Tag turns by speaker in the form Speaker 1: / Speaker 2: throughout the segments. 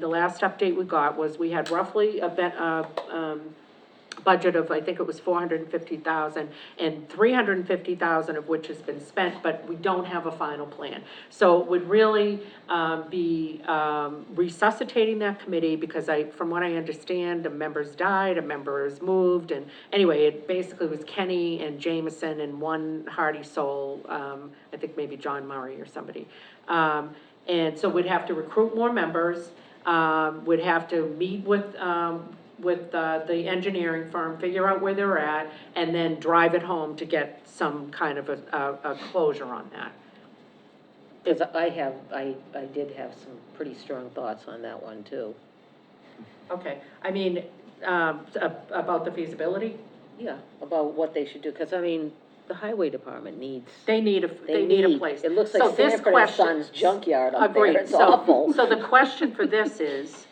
Speaker 1: The last update we got was we had roughly a bet, uh, um, budget of, I think it was four hundred and fifty thousand, and three hundred and fifty thousand of which has been spent, but we don't have a final plan. So it would really, um, be, um, resuscitating that committee, because I, from what I understand, a member's died, a member has moved, and anyway, it basically was Kenny and Jameson and one hardy soul, um, I think maybe John Murray or somebody. Um, and so we'd have to recruit more members, um, would have to meet with, um, with, uh, the engineering firm, figure out where they're at, and then drive it home to get some kind of a, a, a closure on that.
Speaker 2: Because I have, I, I did have some pretty strong thoughts on that one, too.
Speaker 1: Okay, I mean, um, a- about the feasibility,
Speaker 2: Yeah, about what they should do, because I mean, the highway department needs,
Speaker 1: they need a, they need a place.
Speaker 2: It looks
Speaker 1: So
Speaker 2: like
Speaker 1: this
Speaker 2: Sanford and
Speaker 1: question-
Speaker 2: Son's junkyard up
Speaker 1: Agreed.
Speaker 2: there, it's
Speaker 1: So-
Speaker 2: awful.
Speaker 1: So the question for this is,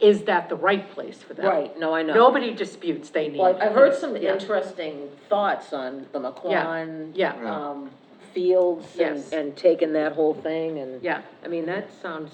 Speaker 1: is that the right place for them?
Speaker 2: Right, no, I know.
Speaker 1: Nobody disputes they need.
Speaker 2: Well, I've heard some
Speaker 1: Yeah.
Speaker 2: interesting thoughts on the McLaren.
Speaker 1: Yeah.
Speaker 3: Yeah.
Speaker 2: Um, fields
Speaker 1: Yes.
Speaker 2: and, and taking that whole thing and.
Speaker 1: Yeah.
Speaker 2: I mean, that sounds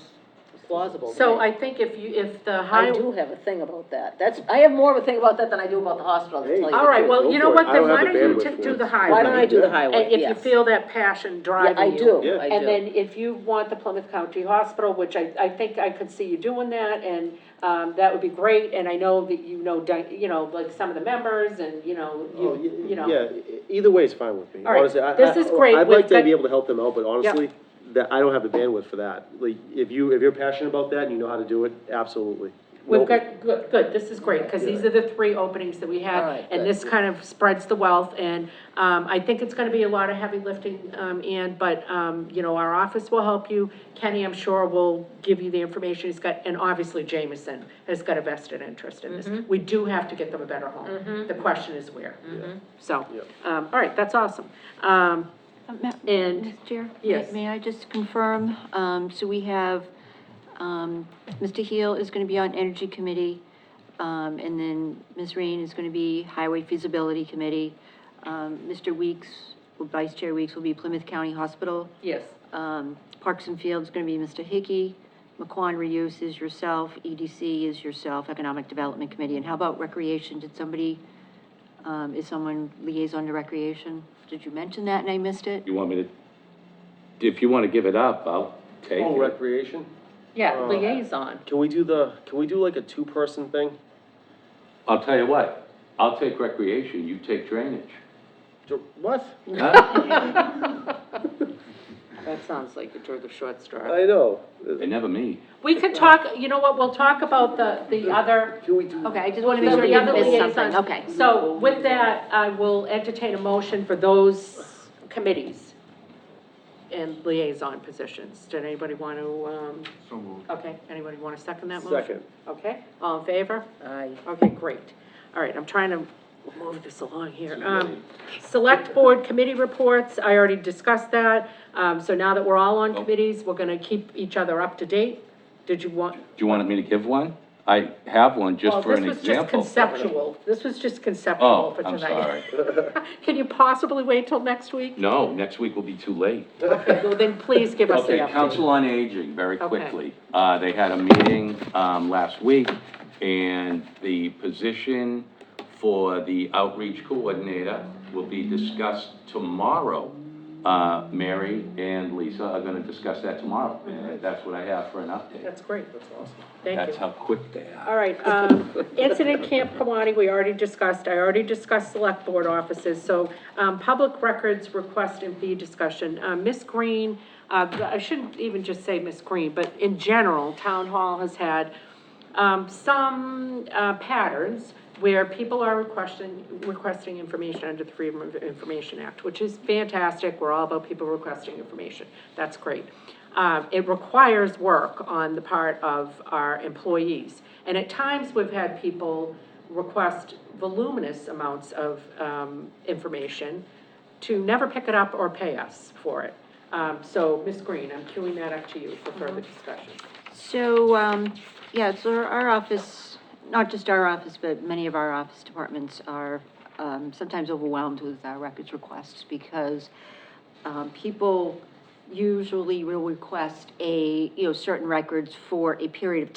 Speaker 2: plausible. to
Speaker 1: So
Speaker 2: me.
Speaker 1: I think if you, if the
Speaker 2: I
Speaker 1: high.
Speaker 2: do have a thing about that. That's, I have more of a thing about that than I do about the hospital, to tell you the
Speaker 3: Hey.
Speaker 1: All right,
Speaker 2: truth.
Speaker 1: well, you know
Speaker 3: Go for
Speaker 1: what,
Speaker 3: it. I
Speaker 1: then
Speaker 3: don't have
Speaker 1: why
Speaker 3: the
Speaker 1: don't you
Speaker 3: bandwidth
Speaker 1: take,
Speaker 3: for
Speaker 1: do
Speaker 3: it.
Speaker 1: the highway?
Speaker 2: Why don't I do the highway?
Speaker 1: And if you
Speaker 2: Yes.
Speaker 1: feel that passion
Speaker 2: Yeah,
Speaker 1: driving
Speaker 2: I
Speaker 1: you.
Speaker 2: do,
Speaker 3: Yeah.
Speaker 2: I
Speaker 1: And
Speaker 2: do.
Speaker 1: then if you want the Plymouth County Hospital, which I, I think I could see you doing that, and, um, that would be great, and I know that you know, di- you know, like some of the members, and, you know,
Speaker 3: Oh,
Speaker 1: you,
Speaker 3: y-
Speaker 1: you know.
Speaker 3: Yeah, e- either way is fine with me,
Speaker 1: All right,
Speaker 3: honestly, I,
Speaker 1: this is
Speaker 3: I,
Speaker 1: great
Speaker 3: I'd
Speaker 1: with
Speaker 3: like
Speaker 1: the-
Speaker 3: to be able to help them out, but honestly, that, I don't have the bandwidth for that, like, if you, if you're passionate about that and you know how to do it, absolutely.
Speaker 1: We've
Speaker 3: Nope.
Speaker 1: got, good, good, this is great, because these are the three openings that we
Speaker 2: All
Speaker 1: have,
Speaker 2: right,
Speaker 1: and
Speaker 2: good.
Speaker 1: this kind of spreads the wealth, and, um, I think it's gonna be a lot of heavy lifting, um, and, but, um, you know, our office will help you, Kenny, I'm sure, will give you the information he's got, and obviously Jameson has got a vested interest in this. We do have to get them a better home, the question is where, so,
Speaker 3: Yep.
Speaker 1: um, all right, that's awesome. Um,
Speaker 4: Uh, Ma-
Speaker 1: And-
Speaker 4: Ms. Chair? may-
Speaker 1: Yes.
Speaker 4: May I just confirm, um, so we have, um, Mr. Heel is gonna be on Energy Committee, um, and then Ms. Rain is gonna be Highway Feasibility Committee. Um, Mr. Weeks, or Vice Chair Weeks will be Plymouth County Hospital.
Speaker 1: yes,
Speaker 4: Um, Parks and Fields is gonna be Mr. Hickey. McQuan Reuse is yourself, EDC is yourself, Economic Development Committee. And how about Recreation? Did somebody, um, is someone liaison to Recreation? Did you mention that and I missed it?
Speaker 5: You want me to, if you want to give it up, I'll take
Speaker 3: Oh,
Speaker 5: it.
Speaker 3: recreation,
Speaker 1: yeah, liaison,
Speaker 3: can we do the, can we do like a two-person thing?
Speaker 5: I'll tell you what, I'll take recreation, you take drainage.
Speaker 3: Do- What?
Speaker 5: Huh?
Speaker 2: That sounds like you drew the short straw.
Speaker 3: I know,
Speaker 5: They never meet.
Speaker 1: we could talk, you know what, we'll talk about the, the other.
Speaker 3: can we do?
Speaker 4: Okay, I just want to
Speaker 1: So
Speaker 4: make sure
Speaker 1: the
Speaker 4: you
Speaker 1: other
Speaker 4: didn't miss something,
Speaker 1: liaisons-
Speaker 4: okay.
Speaker 1: So with that, I will entertain a motion for those committees and liaison positions. Did anybody want to, um,
Speaker 3: So moved.
Speaker 1: okay, anybody want to second that motion?
Speaker 3: Second.
Speaker 1: Okay, all in favor?
Speaker 2: Aye.
Speaker 1: Okay, great. All right, I'm trying to move this along here. Um, select board committee reports, I already discussed that. Um, so now that we're all
Speaker 3: Oh.
Speaker 1: on committees, we're gonna keep each other up to date. Did you want,
Speaker 5: Do you want me to give one? I have one
Speaker 1: Well,
Speaker 5: just for an
Speaker 1: This was just
Speaker 5: example.
Speaker 1: conceptual, this was just conceptual
Speaker 5: Oh,
Speaker 1: for
Speaker 5: I'm
Speaker 1: tonight.
Speaker 5: sorry.
Speaker 1: Can you possibly wait till next week?
Speaker 5: No, next week will be too late.
Speaker 1: Well, then please give us the
Speaker 5: Okay,
Speaker 1: update.
Speaker 5: Council on Aging, very
Speaker 1: Okay.
Speaker 5: quickly. Uh, they had a meeting, um, last week, and the position for the outreach coordinator will be discussed tomorrow. Uh, Mary and Lisa are gonna discuss that tomorrow, and that's what I have for an update.
Speaker 1: That's great,
Speaker 3: That's awesome.
Speaker 1: thank
Speaker 5: That's
Speaker 1: you.
Speaker 5: how quick they are.
Speaker 1: All right, um, incident Camp Kamani, we already discussed, I already discussed select board offices, so, um, public records request and fee discussion. Uh, Ms. Green, uh, I shouldn't even just say Ms. Green, but in general, town hall has had, um, some, uh, patterns where people are requesting, requesting information under the Freedom of Information Act, which is fantastic, we're all about people requesting information, that's great. Um, it requires work on the part of our employees, and at times, we've had people request voluminous amounts of, um, information to never pick it up or pay us for it. Um, so, Ms. Green, I'm queuing that up to you for further discussion.
Speaker 4: So, um, yeah, so our- our office, not just our office, but many of our office departments are, um, sometimes overwhelmed with our records requests because, um, people usually will request a, you know, certain records for a period of